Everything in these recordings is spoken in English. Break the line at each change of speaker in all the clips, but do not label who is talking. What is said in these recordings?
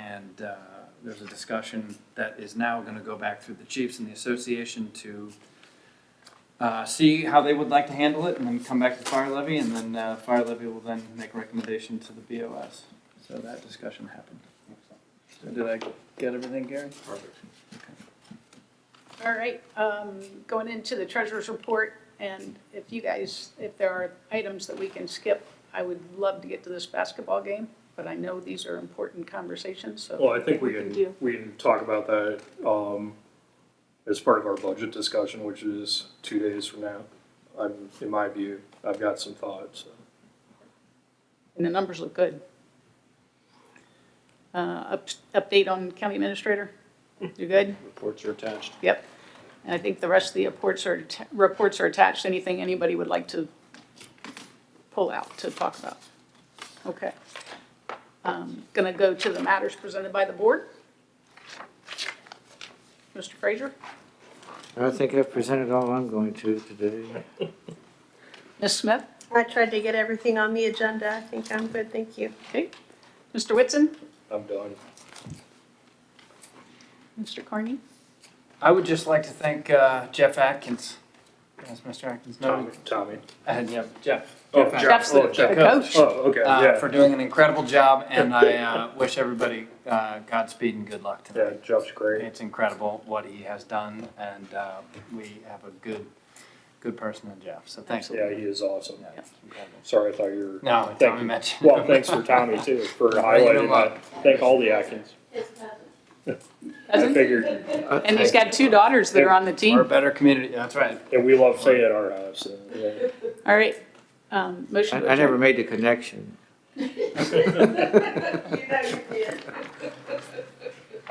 and uh, there's a discussion that is now gonna go back through the chiefs and the association to uh, see how they would like to handle it, and then come back to fire levy, and then uh, fire levy will then make a recommendation to the BOS. So that discussion happened. So Did I get everything, Gary?
All right, um, going into the treasurer's report, and if you guys, if there are items that we can skip, I would love to get to this basketball game, but I know these are important conversations, so.
Well, I think we
do.
can, we can talk about that, um, as part of our budget discussion, which is two days from now. I'm, in my view, I've got some thoughts.
And the numbers look good. Uh, up- Update on county administrator? You good?
Reports are attached.
Yep. And I think the rest of the reports are, atta- reports are attached, anything anybody would like to pull out to talk about. Okay. Um, Gonna go to the matters presented by the board. Mr. Frazier?
I don't think I've presented all I'm going to today.
Ms. Smith?
I tried to get everything on the agenda. I think I'm good, thank you.
Okay. Mr. Whitson?
I'm done.
Mr. Carney?
I would just like to thank uh, Jeff Atkins. Yes, Mr. Atkins, no,
Tommy, Tommy.
and, yeah, Jeff.
Oh,
Jeff
Jeff.
Jeff's the
oh,
the
Jeff.
coach.
Oh, okay,
uh,
yeah,
for doing an incredible job, and I uh, wish everybody uh, Godspeed and good luck
yeah,
tonight.
Jeff's great.
It's incredible what he has done, and uh, we have a good, good person in Jeff. So thanks.
Yeah, he is awesome.
Yeah, it's incredible.
Sorry, I thought you were.
No,
Thank
Tommy
you.
mentioned.
Well, thanks for Tommy too, for
Bringing him
highlighting that. Thank all the Atkins. I
Doesn't-
figured,
And he's got two daughters that are on the
We're a
team.
better community. That's right.
and we love Fay at our house. so, yeah.
All right. Um, Motion
I,
to
I never
adjourn.
made the connection.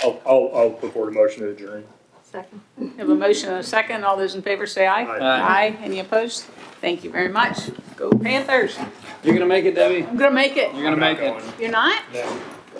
I'll, I'll, I'll put forward a motion to adjourn.
Second.
We Have a motion and a second. All those in favor say aye.
Aye.
Aye.
Aye. Any opposed? Thank you very much. Go Panthers.
You're gonna make it, Debbie.
I'm gonna make it.
You're gonna
I'm not
make it.
going.
You're not?
No.